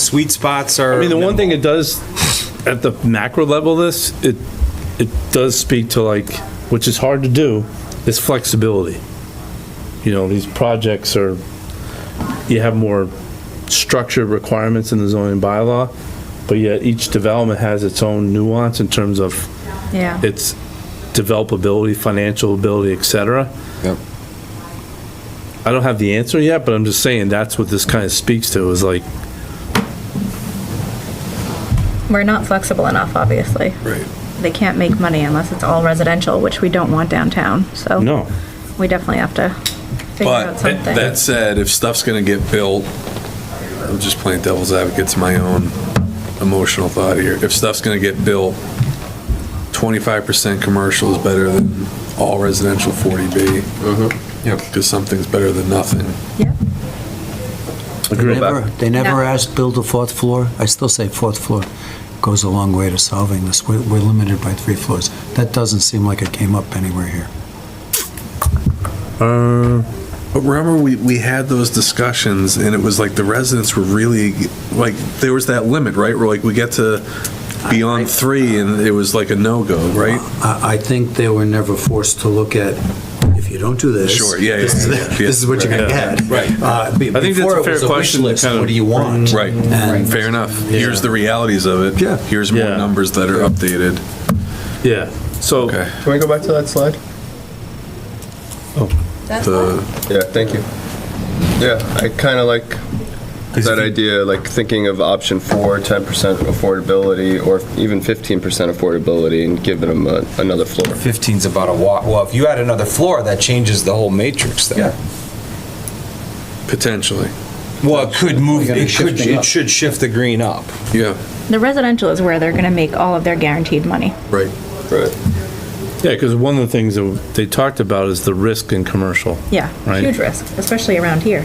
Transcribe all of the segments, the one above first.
sweet spots are. I mean, the one thing it does, at the macro level, this, it, it does speak to like, which is hard to do, is flexibility. You know, these projects are, you have more structured requirements in the zoning bylaw, but yet each development has its own nuance in terms of Yeah. its developability, financial ability, et cetera. Yep. I don't have the answer yet, but I'm just saying that's what this kind of speaks to, is like, We're not flexible enough, obviously. Right. They can't make money unless it's all residential, which we don't want downtown, so. no. We definitely have to figure out But something. that said, if stuff's gonna get built, I'm just playing devil's advocate to my own emotional thought here. If stuff's gonna get built, twenty-five percent commercial is better than all residential forty B. Yep. Because something's better than nothing. Yep. Agree. Never- They never No. asked build a fourth floor. I still say fourth floor goes a long way to solving this. We're, we're limited by three floors. That doesn't seem like it came up anywhere here. Uh, But remember, we, we had those discussions, and it was like the residents were really, like, there was that limit, right? Where like, we get to beyond three, and it was like a no-go, right? I, I think they were never forced to look at, if you don't do this. Sure, yeah, yeah, This yeah, yeah. is this is what you're gonna get. Right. Uh, be- I think that's a before it fair was wish question to list, kind of- What do you want? Right, And- fair enough. Here's Yeah. the realities of it. Yeah. Here's more Yeah. numbers that are updated. Yeah, so, Okay. Can we go back to that slide? The, Yeah, thank you. Yeah, I kind of like that idea, like thinking of option four, 10% affordability, or even 15% affordability and giving them a- another floor. 15's about a walk. Well, if you add another floor, that changes the whole matrix there. potentially, Well, it could move, gotta be it could, shifting it up. should shift the green up. yeah, The residential is where they're gonna make all of their guaranteed money. right. Right. yeah, because one of the things that they talked about is the risk in commercial. Yeah, Right. huge risk, especially around here.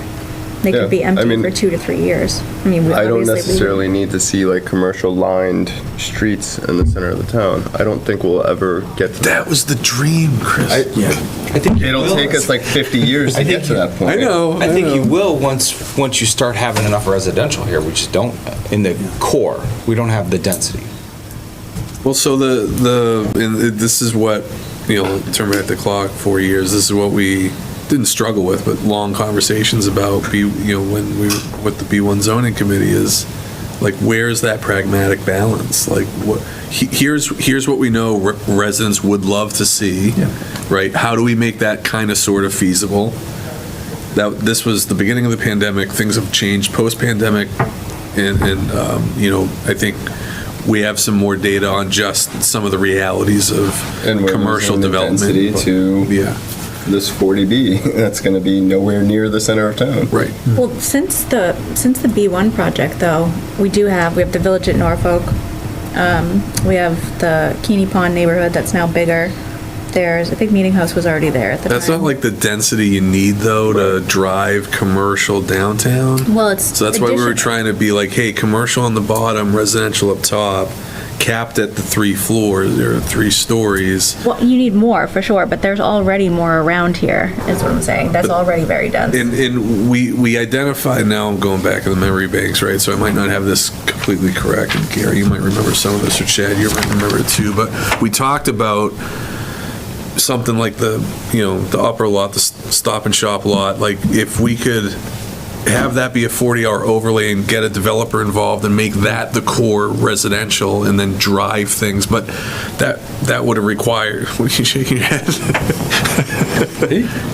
They Yeah, could be I empty mean- for two to three years. I mean, we- I don't obviously we- necessarily need to see like commercial lined streets in the center of the town. I don't think we'll ever get to that. That was the dream, I- Chris. I think you It'll will. take us like 50 years to I think get to you- that point. I know. I think you will once, once you start having enough residential here, we just don't, in the core, we don't have the density. Well, so the, the, and it- this is what, you know, terminate the clock, four years, this is what we didn't struggle with, but long conversations about, B- you know, when we, what the B1 zoning committee is, like, where's that pragmatic balance? Like, what, he- here's, here's what we know re- residents would love to see, right? How do we make that kind of sort of feasible? That, this was the beginning of the pandemic, things have changed post-pandemic, and, and, um, you know, I think we have some more data on just some of the realities of And we're commercial losing the development. density to- Yeah, This 40B, that's going to be nowhere near the center of town. right. Well, since the, since the B1 project, though, we do have, we have the Village at Norfolk, um, we have the Keeney Pond neighborhood that's now bigger. There's, I think Meeting House was already there at the time. That's not like the density you need though to drive commercial downtown. Well, it's. So that's why we were addition- trying to be like, hey, commercial on the bottom, residential up top, capped at the three floors or three stories. Well, you need more, for sure, but there's already more around here, is what I'm saying. That's already very dense. And, and we, we identified, now I'm going back in the memory banks, right? So I might not have this completely correct, and Gary, you might remember some of this, or Chad, you might remember it too, but we talked about something like the, you know, the upper lot, the s- stop and shop lot, like if we could have that be a 40-hour overlay and get a developer involved and make that the core residential and then drive things, but that, that would have required, what are you shaking your head?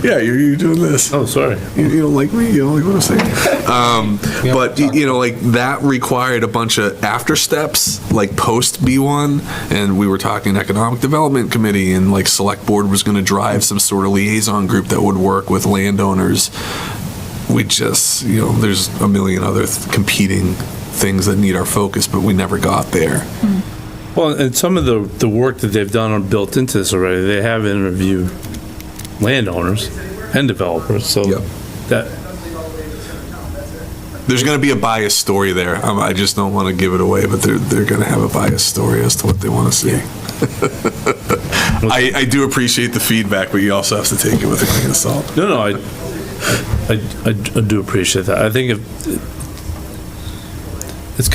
Yeah, you're, you're doing this Oh, sorry. you, you don't like me, you don't like what I'm saying. Um, but you, you know, like that required a bunch of after steps, like post B1, and we were talking economic development committee, and like select board was going to drive some sort of liaison group that would work with landowners. We just, you know, there's a million other th- competing things that need our focus, but we never got there. Well, and some of the, the work that they've done are built into this already. They have interviewed landowners and developers, so Yep. that, There's going to be a biased story there. Um, I just don't want to give it away, but they're, they're going to have a biased story as to what they want to see. I, I do appreciate the feedback, but you also have to take it with a grain of salt. no, no, I, I, I do appreciate that. I think if,